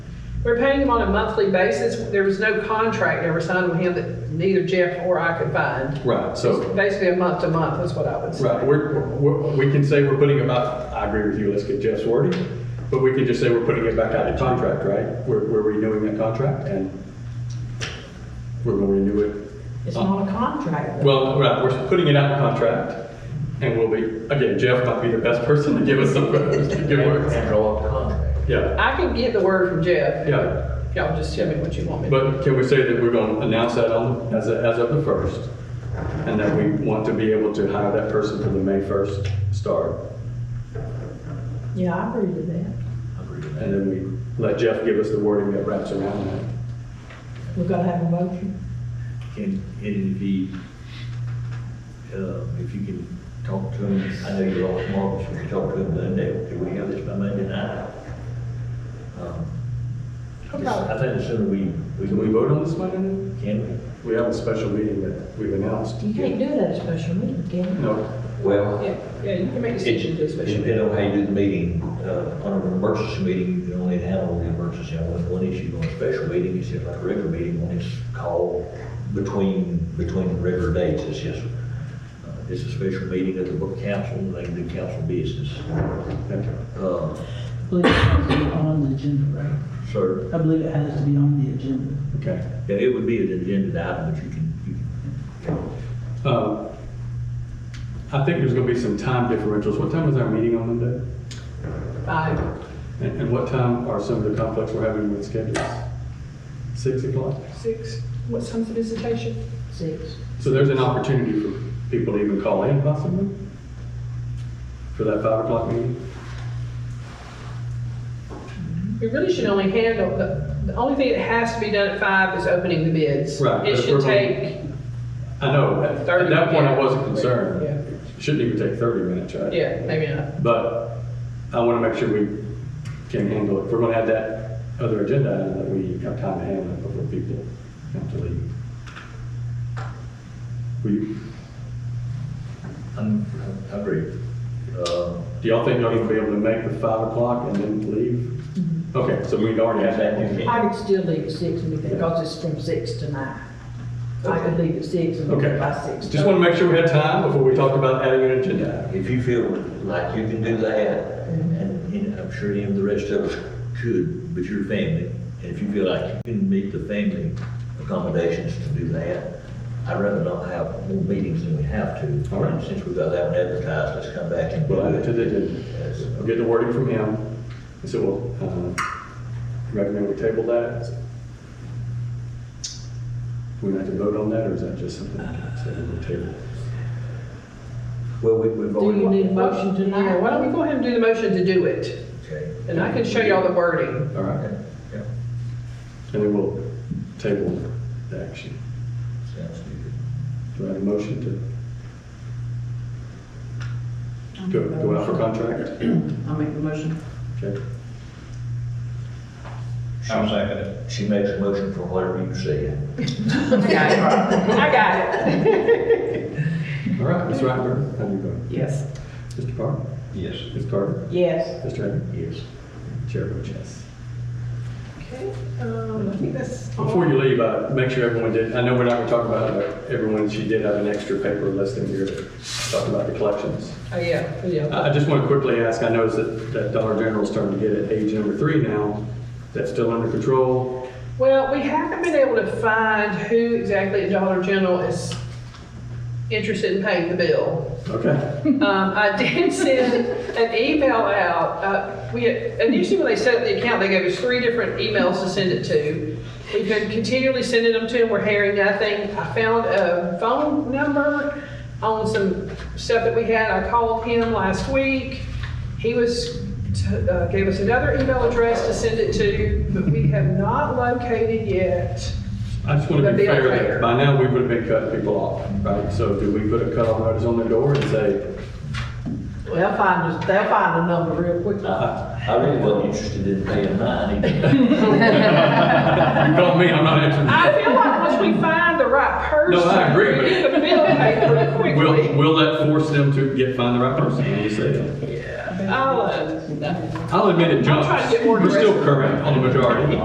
We're paying him on a monthly basis. There was no contract ever signed with him that neither Jeff or I could find. Right, so, Basically, a month to month is what I would right, say. we're, we're- we can say we're putting them out, I agree with you, let's get Jeff's wording, but we can just say we're putting it back out of contract, right? We're, we're renewing that contract and we're gonna renew it. It's not a contract. Well, right, we're putting it out of contract and we'll be, again, Jeff might be the best person to give us some, to give words. And draw up a contract. Yeah, I can get the word from Jeff. yeah. Y'all just tell me what you want me to. But can we say that we're going to announce that on, as, as of the first? And that we want to be able to hire that person for the May first start? Yeah, I agree with that. I agree with And that. then we let Jeff give us the wording that wraps around that. We've got to have a motion. And, and if he, uh, if you can talk to him, I know you're all smart, but if you talk to him Monday, do we have this by Monday night? Um, Okay. I think the sooner we, we Can we can, vote on this Monday? we? We have a special meeting that we've announced. You can't do it at a special meeting, can you? No, Well, Yeah, yeah, you can make a decision to a It special. depends on how you do the meeting, uh, on an emergency meeting, you can only handle the emergency on one- one issue, on a special meeting, it's just like a regular meeting, when it's called between, between regular dates, it's just, uh, it's a special meeting of the book council, they can do council business. thank you. Uh, I believe it has to be on the agenda, right? so, I believe it has to be on the agenda. Okay. yeah, it would be an agenda item, but you can, you can. Um, I think there's gonna be some time differentials. What time is our meeting on Monday? Five. And, and what time are some of the conflicts we're having with schedules? Six o'clock? Six, what time's the visitation? Six. So there's an opportunity for people to even call in possibly? For that five o'clock meeting? We really should only handle, the, the only thing that has to be done at five is opening the bids. Right, It but should we're going- take I know, at at that point I wasn't concerned. Yeah. It Shouldn't even take thirty minutes, right? Yeah, maybe not. But I want to make sure we can handle it. If we're going to have that other agenda item, that we have time to handle it before people have to leave. Will you- I'm, I agree. Uh, Do y'all think y'all gonna be able to make the five o'clock and then Mm-hmm. leave? Okay, so we'd already have that. in. I could still leave at six and everything, because it's from six to nine. I could leave at six and Okay. leave by six. Just want to make sure we had time before we talked about adding an agenda. item. If you feel like you can do that, and, and I'm sure any of the rest of us could, but your family, and if you feel like you can meet the family accommodations to do that, I'd rather not have more meetings than we have to. All right. Since we've got that one advertised, let's come back and do We'll add it to it. the agenda. Yes. I'll get the wording from him. And so we'll uh, recommend we table that. Do we have to vote on that, or is that just something that's on the table? Well, we, we've Do you already, need a motion Yeah, tonight? why don't we go ahead and do the motion to do it? okay, And I can show you all the wording. All right, okay, yeah, and then we'll table the action. sounds good. Do I have a motion to go go out for contract? I'll make the motion. Okay. I'm second She makes a motion for whatever you say. I got it. All right, Ms. Rattenberg, how do you vote? Yes. Mr. Parker? Yes. Ms. Carter? Yes. Mr. Evans? Yes. Chair votes yes. Okay, um, I think that's all. Before you leave, uh, make sure everyone did, I know we're not gonna talk about it, but everyone, she did have an extra paper listing here to talk about the collections. Oh, yeah, yeah. I I just want to quickly ask, I noticed that, that Dollar General's starting to get at age number three now. That's still under control? Well, we haven't been able to find who exactly at Dollar General is interested in paying the bill. Okay. Um, I did send an email out. Uh, we had, initially when they set up the account, they gave us three different emails to send it to. We've been continually sending them to them. We're hearing nothing. I found a phone number on some stuff that we had. I called him last week. He was t- uh, gave us another email address to send it to, but we have not located yet. I just want to But be they are fair fair. that by now we would have been cutting people off, right? So do we put a cutoff notice on the door and say, They'll find, us- they'll find a number real quick. I, I really wasn't interested in paying mine either. you call me, I'm not interested? I feel like once we find the right person, No, I agree, we but- get the bill paid pretty quickly. Will, will that force them to get, find the right person? What do you say? I'll, uh, I'll admit it I'm trying to jumps. get more We're still aggressive. current on the majority.